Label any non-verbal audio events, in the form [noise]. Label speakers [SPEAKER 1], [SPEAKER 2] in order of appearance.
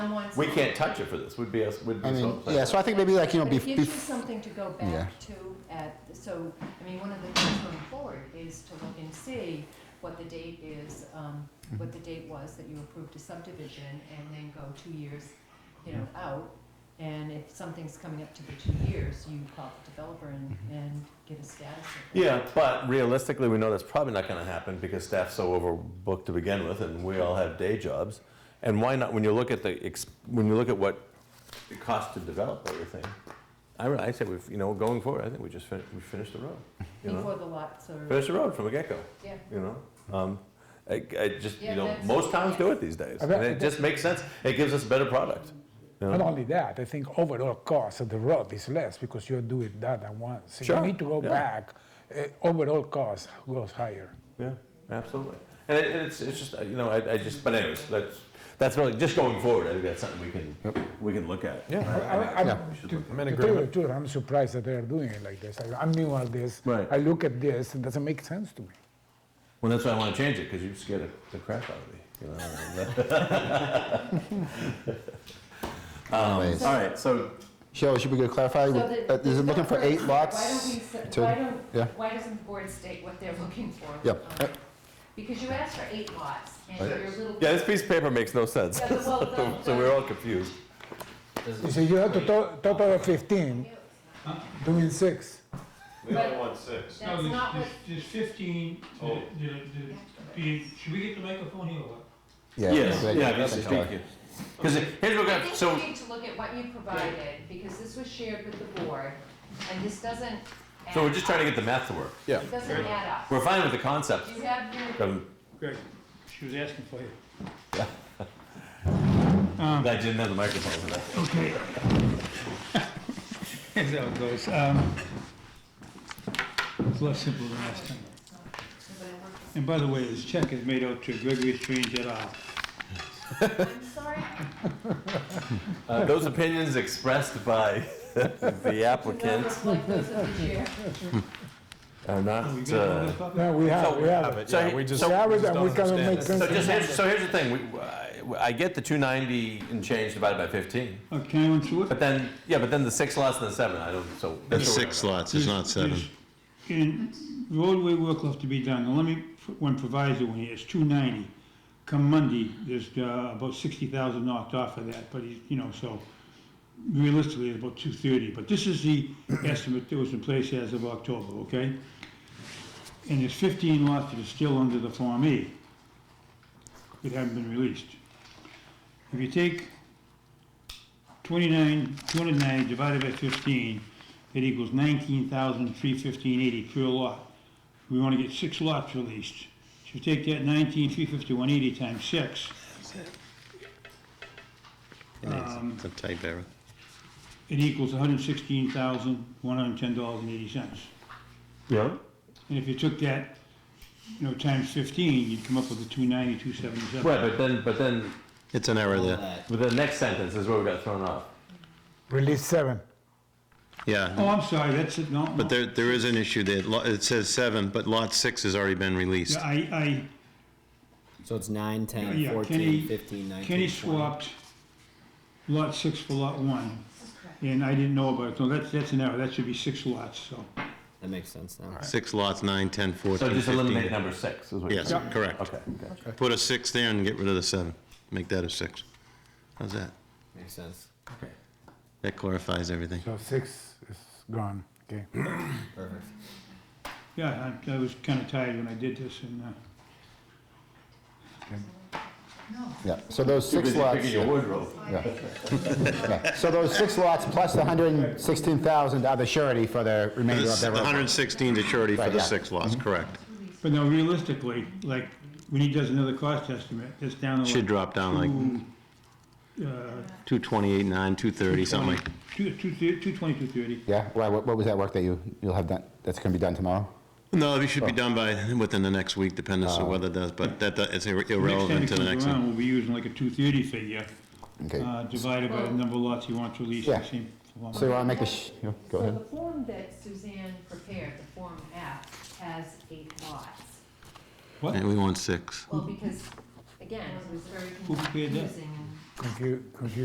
[SPEAKER 1] someone.
[SPEAKER 2] We can't touch it for this, would be, us- would
[SPEAKER 3] I
[SPEAKER 2] be so.
[SPEAKER 3] mean, yeah, so I think maybe like, you know,
[SPEAKER 1] But it
[SPEAKER 3] bef-
[SPEAKER 1] gives you
[SPEAKER 3] bef-
[SPEAKER 1] something to go
[SPEAKER 3] Yeah.
[SPEAKER 1] back to at, so, I mean, one of the things going forward is to look and see what the date is, um,
[SPEAKER 3] Mm-hmm.
[SPEAKER 1] what the date was that you approved a subdivision and then go two years, you know,
[SPEAKER 3] Mm-hmm.
[SPEAKER 1] out. And if something's coming up to be two years, you call the developer and,
[SPEAKER 3] Mm-hmm.
[SPEAKER 1] and get a status. of it.
[SPEAKER 2] Yeah, but realistically, we know that's probably not gonna happen because staff's so overbooked to begin with and we all have day jobs. And why not, when you look at the, ex- when you look at what it costs to develop everything, I, re- I said we've, you know, going forward, I think we just fin, we finished the road. You know,
[SPEAKER 1] Before the lots are,
[SPEAKER 2] finish the road from the get-go,
[SPEAKER 1] yeah.
[SPEAKER 2] you know? Um, I, I just, you
[SPEAKER 1] Yeah,
[SPEAKER 2] know,
[SPEAKER 1] that's-
[SPEAKER 2] most towns do it these days.
[SPEAKER 4] I
[SPEAKER 2] And
[SPEAKER 4] bet-
[SPEAKER 2] it just makes sense. It gives us a better product. you know?
[SPEAKER 4] Not only that, I think overall cost of the road is less because you're doing that at once. So
[SPEAKER 2] Sure,
[SPEAKER 4] You need to go
[SPEAKER 2] yeah.
[SPEAKER 4] back, uh, overall cost goes higher.
[SPEAKER 2] Yeah, absolutely. And it, and it's, it's just, uh, you know, I, I just, but anyways, that's, that's really, just going forward, I think that's something we can, we can look at.
[SPEAKER 4] I- I- I'm-
[SPEAKER 2] we should
[SPEAKER 4] to-
[SPEAKER 2] look
[SPEAKER 4] to tell you the truth, I'm surprised that they're doing it like this. I- I'm new at this.
[SPEAKER 2] Right.
[SPEAKER 4] I look at this, it doesn't make sense to me.
[SPEAKER 2] Well, that's why I wanna change it, cause you scared the crap out of me, you [laughs] know?
[SPEAKER 3] anyways.
[SPEAKER 2] Alright, so,
[SPEAKER 3] um, Cheryl, should we go clarify,
[SPEAKER 1] So
[SPEAKER 3] uh,
[SPEAKER 1] the-
[SPEAKER 3] is
[SPEAKER 1] the-
[SPEAKER 3] it looking for
[SPEAKER 1] the-
[SPEAKER 3] eight lots?
[SPEAKER 1] Why don't we, s-
[SPEAKER 3] to-
[SPEAKER 1] why
[SPEAKER 3] yeah.
[SPEAKER 1] don't, why doesn't the board state what they're looking for?
[SPEAKER 3] Yeah.
[SPEAKER 1] Um, Because you asked for eight lots, and
[SPEAKER 3] Right.
[SPEAKER 1] you're a little.
[SPEAKER 2] yeah, this piece of paper makes no sense,
[SPEAKER 1] Yeah, well, the-
[SPEAKER 2] [laughs] so we're all confused.
[SPEAKER 4] You see, you have to to- total of 15, doing six.
[SPEAKER 5] We
[SPEAKER 1] But-
[SPEAKER 5] only want six.
[SPEAKER 1] That's
[SPEAKER 6] No, there's-
[SPEAKER 1] not what-
[SPEAKER 6] there's- There's fifteen, the-
[SPEAKER 5] Oh.
[SPEAKER 6] the, the, the, should we get the microphone here or what?
[SPEAKER 2] Yes,
[SPEAKER 3] right,
[SPEAKER 2] yeah,
[SPEAKER 3] right,
[SPEAKER 2] this is,
[SPEAKER 3] right.
[SPEAKER 2] thank you. Cause it- here's what we
[SPEAKER 1] I
[SPEAKER 2] have,
[SPEAKER 1] think
[SPEAKER 2] so,
[SPEAKER 1] we need to look at what you provided, because this was shared with the board, and this doesn't.
[SPEAKER 2] so
[SPEAKER 1] add
[SPEAKER 2] we're just trying to
[SPEAKER 1] up.
[SPEAKER 2] get the math to work.
[SPEAKER 3] Yeah.
[SPEAKER 1] It doesn't add up.
[SPEAKER 2] We're fine with the concept.
[SPEAKER 1] You have your,
[SPEAKER 2] Um,
[SPEAKER 6] Greg, she was asking for you. [laughs]
[SPEAKER 2] I didn't have the microphone for that.
[SPEAKER 6] Okay. That's how it goes. Um, It's less simple than last time. And by the way, this check is made out to Gregory Strange et al.
[SPEAKER 1] I'm sorry,
[SPEAKER 2] Uh, Those opinions expressed by [laughs] the applicant
[SPEAKER 1] numbers like those of the year.
[SPEAKER 2] are not,
[SPEAKER 6] Are Oh, we good on
[SPEAKER 2] uh,
[SPEAKER 6] this topic?
[SPEAKER 4] No, we have,
[SPEAKER 2] So
[SPEAKER 4] we have it.
[SPEAKER 2] so, he-
[SPEAKER 4] We
[SPEAKER 2] so
[SPEAKER 4] have it and we cannot make sense
[SPEAKER 2] So
[SPEAKER 4] of
[SPEAKER 2] just,
[SPEAKER 4] it.
[SPEAKER 2] here's, so here's the thing, we, I, I get the two ninety and change divided by fifteen,
[SPEAKER 6] Uh, Can I run through it?
[SPEAKER 2] but then, yeah, but then the six lots and the seven, I don't, so.
[SPEAKER 7] There's six lots, it's not seven.
[SPEAKER 6] And roadway work left to be done, now let me, put one proviso in here, it's two ninety. Come Monday, there's uh, about sixty thousand knocked off of that, but he's, you know, so realistically, it's about two thirty, but this is the estimate that was in place as of October, okay? And there's fifteen lots that are still under the Form E that haven't been released. If you take twenty-nine, two hundred and nine divided by fifteen, that equals nineteen thousand three fifteen eighty per lot. We wanna get six lots released. So you take that nineteen three fifty-one eighty times six, Um,
[SPEAKER 7] It's a type error.
[SPEAKER 6] it equals hundred sixteen thousand one hundred ten dollars and eighty cents.
[SPEAKER 2] Yeah.
[SPEAKER 6] And if you took that, you know, times fifteen, you'd come up with a two ninety, two seventy-seven.
[SPEAKER 2] Right, but then, but then,
[SPEAKER 7] It's an error there.
[SPEAKER 2] but the next sentence is where we got thrown off.
[SPEAKER 4] Release seven.
[SPEAKER 6] Oh,
[SPEAKER 7] Yeah,
[SPEAKER 6] I'm sorry, that's it, no, no.
[SPEAKER 7] but there, there is an issue there. Lo- It says seven, but lot six has already been released.
[SPEAKER 6] Yeah, I,
[SPEAKER 8] So it's 9, 10,
[SPEAKER 6] Yeah,
[SPEAKER 8] 14,
[SPEAKER 6] Kenny-
[SPEAKER 8] 15,
[SPEAKER 6] I,
[SPEAKER 8] 19.
[SPEAKER 6] Kenny
[SPEAKER 8] 20.
[SPEAKER 6] swapped lot six for lot one,
[SPEAKER 1] This is correct.
[SPEAKER 6] and I didn't know about it, so that's, that's an error, that should be six lots, so.
[SPEAKER 8] That makes sense now.
[SPEAKER 7] Six lots, nine, ten,
[SPEAKER 2] So
[SPEAKER 7] fourteen,
[SPEAKER 2] just eliminate
[SPEAKER 7] fifteen.
[SPEAKER 2] number six, is what you're
[SPEAKER 7] Yes,
[SPEAKER 2] saying.
[SPEAKER 7] correct.
[SPEAKER 2] Okay, gotcha.
[SPEAKER 7] Put a six there and get rid of the seven. Make that a six. How's that?
[SPEAKER 8] Makes sense.
[SPEAKER 7] That clarifies everything.
[SPEAKER 4] So six is gone, okay.
[SPEAKER 8] Perfect.
[SPEAKER 6] Yeah, I, I was kinda tired when I did this, and, uh,
[SPEAKER 3] Yeah, so those six
[SPEAKER 2] Busy
[SPEAKER 3] lots,
[SPEAKER 2] Picking your wardrobe.
[SPEAKER 3] yeah. so those six lots plus the hundred and sixteen thousand are the surety for the remainder of
[SPEAKER 7] This-
[SPEAKER 3] their
[SPEAKER 7] The
[SPEAKER 3] road.
[SPEAKER 7] hundred and sixteen to charity for
[SPEAKER 3] Right,
[SPEAKER 7] the
[SPEAKER 3] yeah.
[SPEAKER 7] six lots,
[SPEAKER 2] Mm-hmm.
[SPEAKER 7] correct.
[SPEAKER 6] but now realistically, like, when he does another cost estimate, it's down to
[SPEAKER 7] Should
[SPEAKER 6] like
[SPEAKER 7] drop down like
[SPEAKER 6] two, uh,
[SPEAKER 7] two twenty-eight, nine, two thirty, something like.
[SPEAKER 6] two, two, thir- two twenty, two thirty.
[SPEAKER 3] Yeah, why, what what was that work that you, you'll have done, that's gonna be done tomorrow?
[SPEAKER 7] No, it should be done by, within the next week, depending
[SPEAKER 2] Um,
[SPEAKER 7] on what it does, but that, that- it's ir- irrelevant to the
[SPEAKER 6] Next time he comes
[SPEAKER 7] next one.
[SPEAKER 6] around, we'll be using like a two thirty figure,
[SPEAKER 3] Okay,
[SPEAKER 6] uh, divided by the number of lots he wants released, in the
[SPEAKER 3] Yeah.
[SPEAKER 6] same form.
[SPEAKER 3] so you wanna make a, sh- yeah,
[SPEAKER 1] So
[SPEAKER 3] go ahead.
[SPEAKER 1] the form that Suzanne prepared, the Form F, has eight lots.
[SPEAKER 6] What?
[SPEAKER 7] And we want six.
[SPEAKER 1] Well, because, again, it was very
[SPEAKER 6] Who prepared that?
[SPEAKER 1] confusing.
[SPEAKER 4] confu- confusing.